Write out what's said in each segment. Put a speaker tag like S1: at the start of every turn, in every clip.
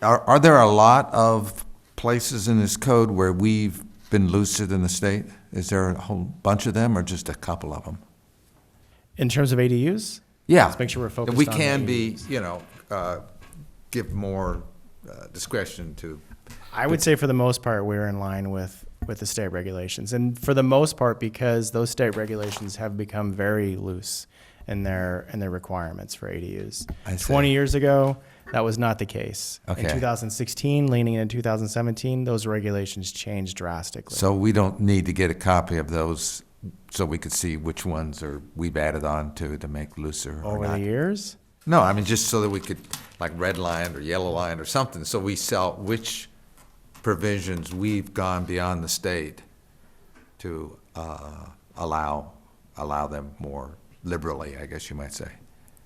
S1: Are, are there a lot of places in this code where we've been looser than the state? Is there a whole bunch of them or just a couple of them?
S2: In terms of ADUs?
S1: Yeah.
S2: Let's make sure we're focused
S1: We
S2: on
S1: can
S2: the-
S1: be, you know, uh, give more uh, discretion to,
S2: I would say for the most part, we're in line with, with the state regulations. And for the most part, because those state regulations have become very loose in their, in their requirements for ADUs.
S1: I see.
S2: 20 years ago, that was not the case.
S1: Okay.
S2: In 2016, leaning into 2017, those regulations changed drastically.
S1: so we don't need to get a copy of those so we could see which ones are, we've added on to to make looser or
S2: Over
S1: not.
S2: the years,
S1: No, I mean, just so that we could, like, red line or yellow line or something, so we sell which provisions we've gone beyond the state to, uh, allow, allow them more liberally, I guess you might say.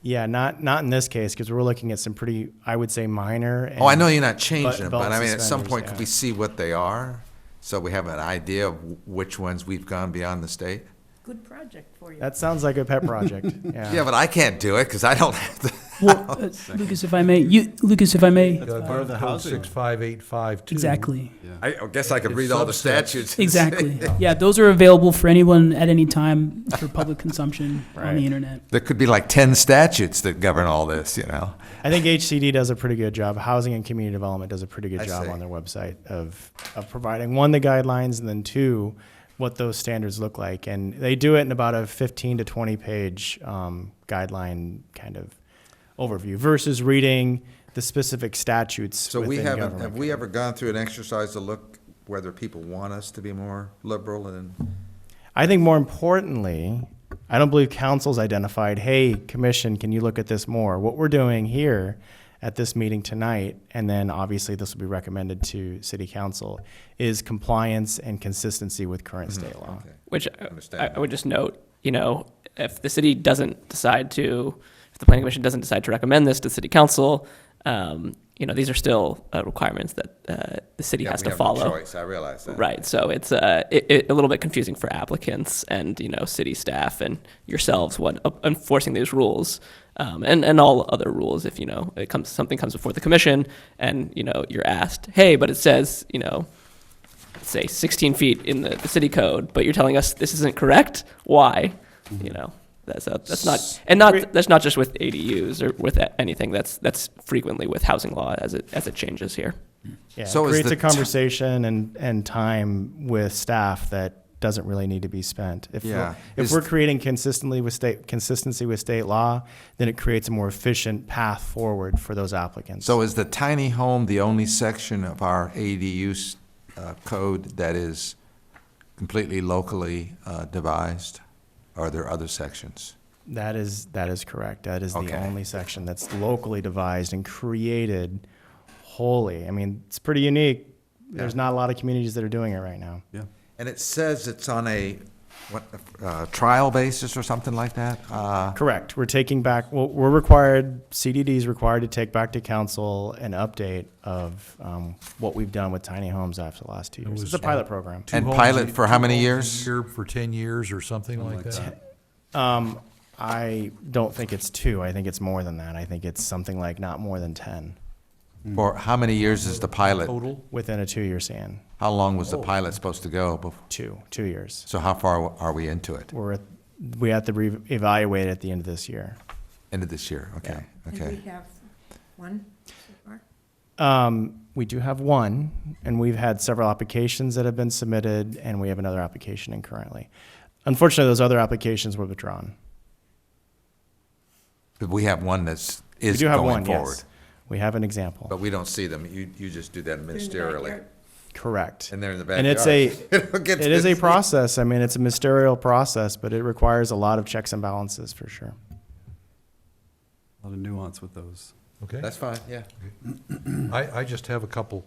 S2: yeah, not, not in this case, because we're looking at some pretty, I would say, minor.
S1: Oh, I know you're not
S2: But-
S1: changing them, but
S2: belt
S1: I mean, at some
S2: suspenders,
S1: point, could
S2: yeah.
S1: we see what they are? So we have an idea of wh- which ones we've gone beyond the state?
S3: Good project for you.
S2: That sounds like a pet project,
S1: Yeah, but I can't do it, because I don't have the.
S4: Well, uh, Lucas, if I may, you, Lucas, if I may,
S5: Part of the housing. Six, five, eight, five, two.
S4: exactly,
S1: I I guess I could read all the statutes. and say-
S4: exactly. Yeah, those are available for anyone at any time for public consumption on
S2: Right.
S4: the internet.
S1: There could be like ten statutes that govern all this, you know?
S2: I think HCD does a pretty good job. Housing and Community Development does a pretty good
S1: I
S2: job
S1: see.
S2: on their website of, of providing one, the guidelines, and then two, what those standards look like. And they do it in about a 15 to 20 page um, guideline kind of overview versus reading the specific statutes.
S1: So we
S2: within
S1: haven't, have
S2: government.
S1: we ever gone through an exercise to look whether people want us to be more liberal and?
S2: I think more importantly, I don't believe council's identified, hey, commission, can you look at this more? What we're doing here at this meeting tonight, and then obviously this will be recommended to city council, is compliance and consistency with current
S1: Mm-hmm.
S2: state law.
S6: Which I- I,
S1: Understand.
S6: I would just note, you know, if the city doesn't decide to, if the planning commission doesn't decide to recommend this to city council, um, you know, these are still uh, requirements that uh, the city
S1: Yeah,
S6: has
S1: we
S6: to
S1: have no
S6: follow.
S1: Choice, I realize that.
S6: Right, so it's uh, it, it, a little bit confusing for applicants and you know city staff and yourselves when uh, enforcing these rules, um, and and all other rules. If you know it comes something comes before the commission, and you know you're asked, hey, but it says you know say 16 feet in the, the city code, but you're telling us this isn't correct. Why? You know, that's a, that's not and not that's not just with ADUs or with a- anything. That's that's frequently with housing law as it as it changes here.
S2: Yeah, it
S1: So is
S2: creates
S1: the
S2: a
S1: ti-
S2: conversation and, and time with staff that doesn't really need to be spent. If
S1: Yeah.
S2: we're, if
S1: Is-
S2: we're creating consistently with state consistency with state law, then it creates a more efficient path forward for those applicants.
S1: So is the tiny home the only section of our ADU uh, code that is completely locally uh, devised? Are there other sections?
S2: That is, that is correct. That is
S1: Okay.
S2: the only section that's locally devised and created wholly. I mean, it's pretty unique. There's not a lot of communities that are doing it right now.
S1: And it says it's on a, what, uh, trial basis or something like that? Uh,
S2: Correct. We're taking back, well, we're required, CDD is required to take back to council an update of um, what we've done with tiny homes after the last two years. It's a pilot program.
S5: Two
S1: And
S5: homes
S1: pilot
S5: a-
S1: for how
S5: two
S1: many
S5: homes a
S1: years?
S5: year for ten years or something like that.
S2: Um, I don't think it's two. I think it's more than that. I think it's something like not more than 10
S1: Or how many years is the pilot?
S5: Total?
S2: within a two-year span.
S1: How long
S6: Oh.
S1: was the pilot supposed to go? bef-
S2: Two, two years.
S1: So how far are we into it?
S2: we're at, we have to re- evaluate at the end of this year.
S1: End of this year, okay,
S3: And we
S1: okay.
S3: have one so far.
S2: Um, we do have one, and we've had several applications that have been submitted, and we have another application in currently. Unfortunately, those other applications were withdrawn.
S1: But we have one that's,
S2: We
S1: is
S2: do have
S1: going
S2: one,
S1: forward. Oh.
S2: yes. We have an example.
S1: But we don't see them, you, you just do that
S3: They're in the
S1: ministerially.
S3: backyard.
S2: Correct.
S1: And they're in the
S2: And it's a, it is a process. I mean, it's a ministerial process, but it requires a lot of checks and balances for sure.
S7: A lot of nuance with those.
S5: Okay.
S1: That's fine, yeah.
S5: I, I just have a couple.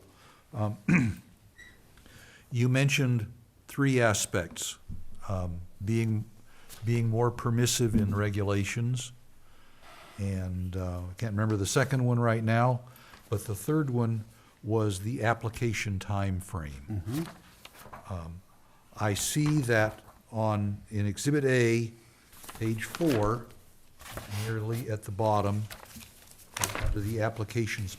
S5: Um, You mentioned three aspects, um, being, being more permissive in regulations, and uh, I can't remember the second one right now, but the third one was the application timeframe. Um, I see that on, in Exhibit A, page four, nearly at the bottom, under the applications